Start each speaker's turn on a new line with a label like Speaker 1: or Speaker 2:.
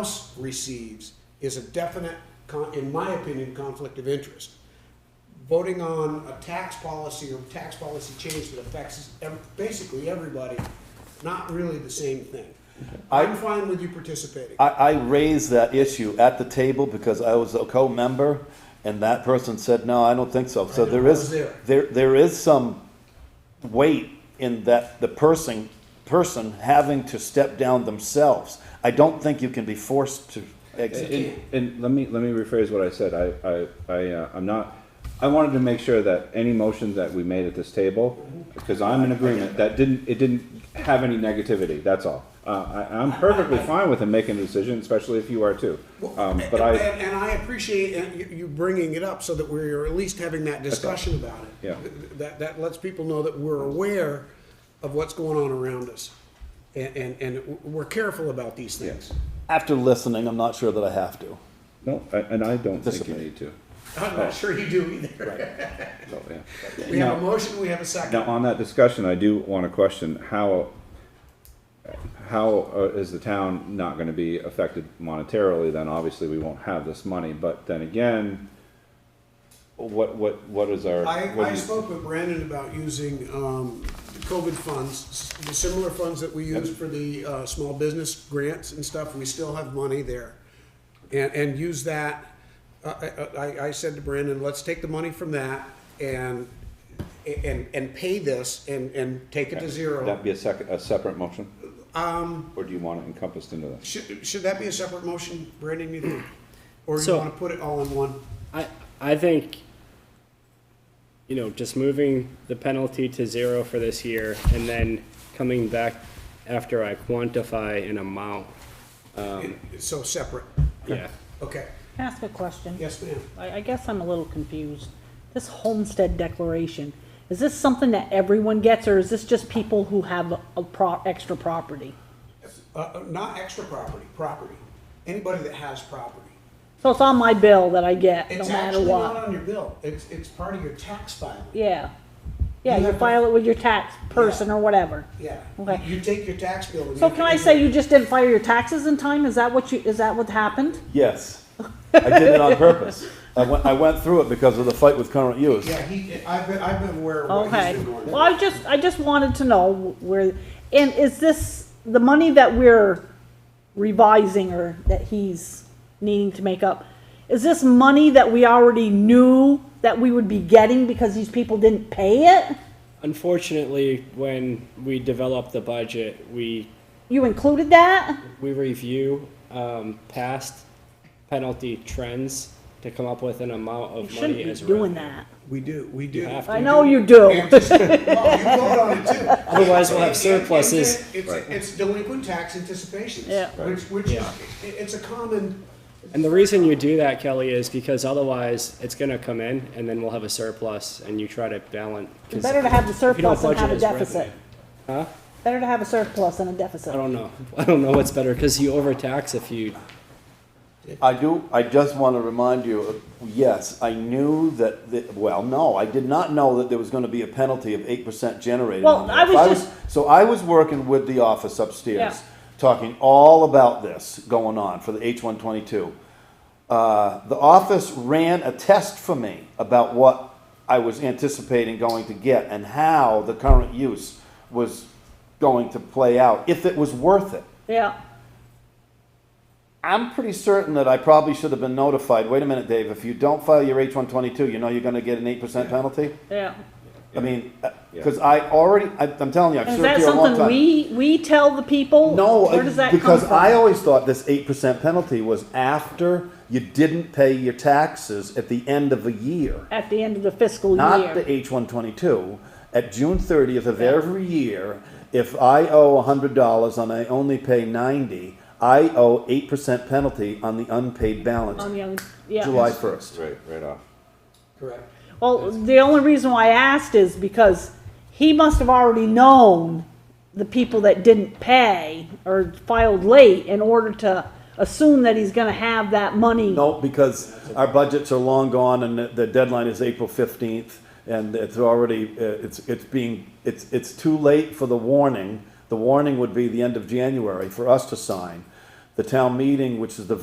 Speaker 1: House receives is a definite, con- in my opinion, conflict of interest. Voting on a tax policy or tax policy change that affects ev- basically everybody, not really the same thing.
Speaker 2: I-
Speaker 1: I'm fine with you participating.
Speaker 2: I, I raised that issue at the table because I was a co-member, and that person said, no, I don't think so. So
Speaker 1: know,
Speaker 2: there
Speaker 1: I
Speaker 2: is,
Speaker 1: was there.
Speaker 2: there, there is some weight in that the person, person having to step down themselves. I don't think you can be forced to exit.
Speaker 3: And, and let me, let me rephrase what I said. I, I, I, uh, I'm not, I wanted to make sure that any motion that we made at this table, because I'm in agreement, that didn't, it didn't have any negativity, that's all. Uh, I, I'm perfectly fine with him making a decision, especially if you are too. Um, but
Speaker 1: and,
Speaker 3: I,
Speaker 1: and, and I appreciate uh, you, you bringing it up so that we're at least having that discussion about it.
Speaker 3: Yeah.
Speaker 1: Th- th- That, that lets people know that we're aware of what's going on around us. And, and, and w- we're careful about these things.
Speaker 2: After listening, I'm not sure that I have to.
Speaker 3: no, I- and I don't think you need to.
Speaker 1: I'm not sure you do either.
Speaker 3: So, yeah.
Speaker 1: We have a
Speaker 3: Now-
Speaker 1: motion, we have a second.
Speaker 3: Now, on that discussion, I do want to question how, how uh, is the town not going to be affected monetarily? Then obviously, we won't have this money, but then again, what, what, what is our?
Speaker 1: I,
Speaker 3: what
Speaker 1: I
Speaker 3: do you-
Speaker 1: spoke with Brandon about using, um, COVID funds, s- the similar funds that we use for the, uh, small business grants and stuff, we still have money there. And, and use that, I, I- I, I said to Brandon, let's take the money from that and, and, and pay this and, and take it to zero.
Speaker 3: That'd be a second, a separate motion? Um. Or do you want it encompassed into this?
Speaker 1: Should, should that be a separate motion, Brandon, you think? Or you
Speaker 4: So-
Speaker 1: wanna put it all in one?
Speaker 4: I, I think, you know, just moving the penalty to zero for this year and then coming back after I quantify an amount,
Speaker 1: So separate,
Speaker 4: yeah.
Speaker 1: okay,
Speaker 5: Can I ask a question?
Speaker 1: yes, ma'am.
Speaker 5: I, I guess I'm a little confused. This homestead declaration, is this something that everyone gets, or is this just people who have a pro, extra property?
Speaker 1: Uh, uh, not extra property, property. Anybody that has property.
Speaker 5: So it's on my bill that I get, no
Speaker 1: It's
Speaker 5: matter
Speaker 1: actually not
Speaker 5: what.
Speaker 1: on your bill. It's, it's part of your tax filing. You
Speaker 5: Yeah. Yeah, you
Speaker 1: have to-
Speaker 5: file it with your tax person
Speaker 1: Yeah.
Speaker 5: or whatever.
Speaker 1: Yeah.
Speaker 5: Okay.
Speaker 1: You take your tax bill and.
Speaker 5: So
Speaker 1: you-
Speaker 5: can I say you just didn't file your taxes in time? Is that what you, is that what happened?
Speaker 2: Yes, I did it on purpose. I went, I went through it because of the fight with current use.
Speaker 1: Yeah, he, I've been, I've been aware of what he's
Speaker 5: Okay,
Speaker 1: been going
Speaker 5: well, I just, I just wanted to know where, and is this, the money that we're revising or that he's needing to make up, is this money that we already knew that we would be getting because these people didn't pay it?
Speaker 4: Unfortunately, when we develop the budget, we,
Speaker 5: You included that?
Speaker 4: we review, um, past penalty trends to come up with an amount
Speaker 5: You
Speaker 4: of
Speaker 5: shouldn't
Speaker 4: money
Speaker 5: be
Speaker 4: as
Speaker 5: doing
Speaker 4: revenue.
Speaker 5: that.
Speaker 1: We do, we do.
Speaker 4: have to.
Speaker 5: I know you do.
Speaker 1: And just- well, you vote on it too.
Speaker 4: Otherwise, we'll have
Speaker 1: It's- it's-
Speaker 4: surpluses.
Speaker 1: It's,
Speaker 3: Right.
Speaker 1: it's delinquent tax anticipations.
Speaker 5: Yeah.
Speaker 1: Which, which, is-
Speaker 4: Yeah.
Speaker 1: it- it's a common,
Speaker 4: And the reason you do that, Kelly, is because otherwise it's gonna come in and then we'll have a surplus and you try to balance.
Speaker 5: It's better to have the
Speaker 4: if you don't
Speaker 5: surplus than have a
Speaker 4: budget as
Speaker 5: deficit.
Speaker 4: revenue.
Speaker 5: Better to have a surplus than a deficit.
Speaker 4: I don't know. I don't know what's better because you overtax if you.
Speaker 2: I do, I just want to remind you, yes, I knew that, the- well, no, I did not know that there was going to be a penalty of eight percent generated
Speaker 5: Well,
Speaker 2: on
Speaker 5: I
Speaker 2: that.
Speaker 5: was
Speaker 2: If
Speaker 5: just-
Speaker 2: So I was working with the office
Speaker 5: Yeah.
Speaker 2: upstairs, talking all about this going on for the H one twenty-two. Uh, the office ran a test for me about what I was anticipating going to get and how the current use was going to play out, if it was worth it.
Speaker 5: Yeah,
Speaker 2: I'm pretty certain that I probably should have been notified, wait a minute, Dave, if you don't file your H one twenty-two, you know you're gonna get an eight percent penalty?
Speaker 5: yeah.
Speaker 2: I mean, uh,
Speaker 3: Yeah.
Speaker 2: cause I already, I, I'm telling you, I've
Speaker 5: Is
Speaker 2: served
Speaker 5: that
Speaker 2: here a long
Speaker 5: something
Speaker 2: time.
Speaker 5: we, we tell the people?
Speaker 2: No,
Speaker 5: Where does that
Speaker 2: I-
Speaker 5: come
Speaker 2: because
Speaker 5: from?
Speaker 2: I always thought this eight percent penalty was after you didn't pay your taxes at the end of a year.
Speaker 5: At the end of the fiscal year.
Speaker 2: Not the H one twenty-two, at June thirtieth of every year, if I owe hundred dollars and I only pay ninety, I owe eight percent penalty on the unpaid balance
Speaker 5: On the other- yeah.
Speaker 2: July first.
Speaker 3: Right, right off.
Speaker 1: correct.
Speaker 5: Well, the only reason why I asked is because he must have already known the people that didn't pay or filed late in order to assume that he's gonna have that money.
Speaker 2: No, because our budgets are long gone and the- the deadline is April fifteenth and it's already, uh, it's, it's being, it's, it's too late for the warning. The warning would be the end of January for us to sign. the town meeting, which is the